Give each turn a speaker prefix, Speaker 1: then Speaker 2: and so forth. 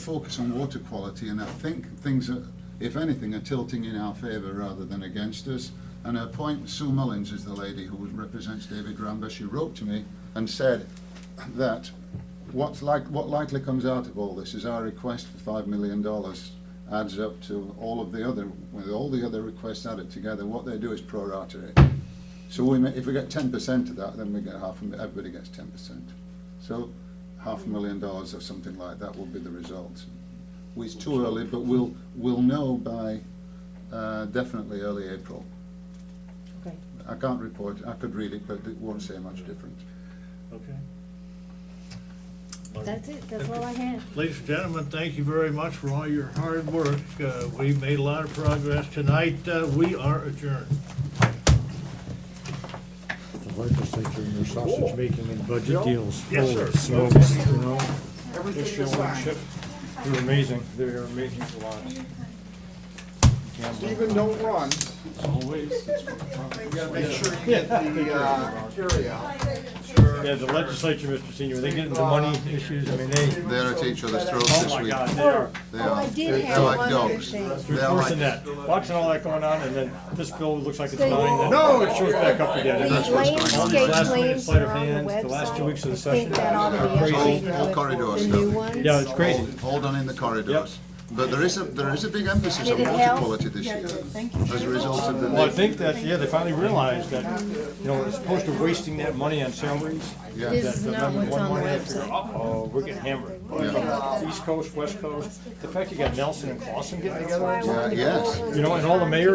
Speaker 1: focus on water quality, and I think things are, if anything, are tilting in our favour rather than against us. And her point, Sue Mullins is the lady who represents David Ramba. She wrote to me and said that what's like, what likely comes out of all this is our request for five million dollars adds up to all of the other, with all the other requests added together. What they do is prorate it. So we, ma- if we get ten percent of that, then we get half, a mi- everybody gets ten percent. So half a million dollars or something like that will be the result. Well, It's too early, but we'll, we'll know by uh, definitely early April.
Speaker 2: Okay.
Speaker 1: I can't report, I could read it, but it won't say much different.
Speaker 3: Okay.
Speaker 2: That's it, that's all I have.
Speaker 3: Ladies and gentlemen, thank you very much for all your hard work. Uh, we made a lot of progress tonight. Uh, we are adjourned.
Speaker 4: The legislature and their sausage making and budget deals.
Speaker 3: Yes, sir.
Speaker 4: Holy smokes, you know?
Speaker 5: Everything is fine.
Speaker 4: They're amazing, they're amazing to watch.
Speaker 5: Stephen, don't run. Always. You gotta make sure you get the, uh, area out.
Speaker 4: Yeah, the legislature, Mr. Senior, they get into money issues, I mean, they,
Speaker 1: They're at each other's throats
Speaker 4: oh
Speaker 1: this
Speaker 4: my
Speaker 1: week.
Speaker 4: God, they are,
Speaker 1: They
Speaker 2: Oh, I
Speaker 1: are.
Speaker 2: did
Speaker 1: They're
Speaker 2: have
Speaker 1: like
Speaker 2: one other
Speaker 1: dogs.
Speaker 2: thing.
Speaker 4: they're
Speaker 1: They're like-
Speaker 4: forcing that. Watching all that going on, and then this bill looks like it's
Speaker 2: They-
Speaker 4: dying, then
Speaker 5: No,
Speaker 4: it shows back up again.
Speaker 2: The
Speaker 4: and that's what's going on.
Speaker 2: landscape
Speaker 4: Last minute
Speaker 2: plans
Speaker 4: sleight
Speaker 2: are
Speaker 4: of
Speaker 2: on the
Speaker 4: hand,
Speaker 2: website.
Speaker 4: the last two weeks of the
Speaker 2: I think
Speaker 4: session.
Speaker 2: that ought to be
Speaker 1: Crazy.
Speaker 2: updated.
Speaker 1: Whole corridors,
Speaker 2: The
Speaker 1: don't
Speaker 2: new
Speaker 1: they?
Speaker 2: ones.
Speaker 4: Yeah, it's crazy.
Speaker 1: Hold hold on in the corridors. But there is a, there is a big emphasis
Speaker 2: Did
Speaker 1: on
Speaker 2: it
Speaker 1: water
Speaker 2: help?
Speaker 1: quality this year as a result of the.
Speaker 4: Well, I think that, yeah, they finally realized that, you know, as opposed to wasting that money on salaries,
Speaker 1: Yeah.
Speaker 4: that
Speaker 2: This is
Speaker 4: the
Speaker 2: not
Speaker 4: number
Speaker 2: what's
Speaker 4: one
Speaker 2: on the
Speaker 4: money they figure,
Speaker 2: website.
Speaker 4: oh, we're getting hammered. East Coast, West Coast, the fact you got Nelson and Clausen getting together,
Speaker 1: Yeah, yes.
Speaker 4: you know, and all the mayors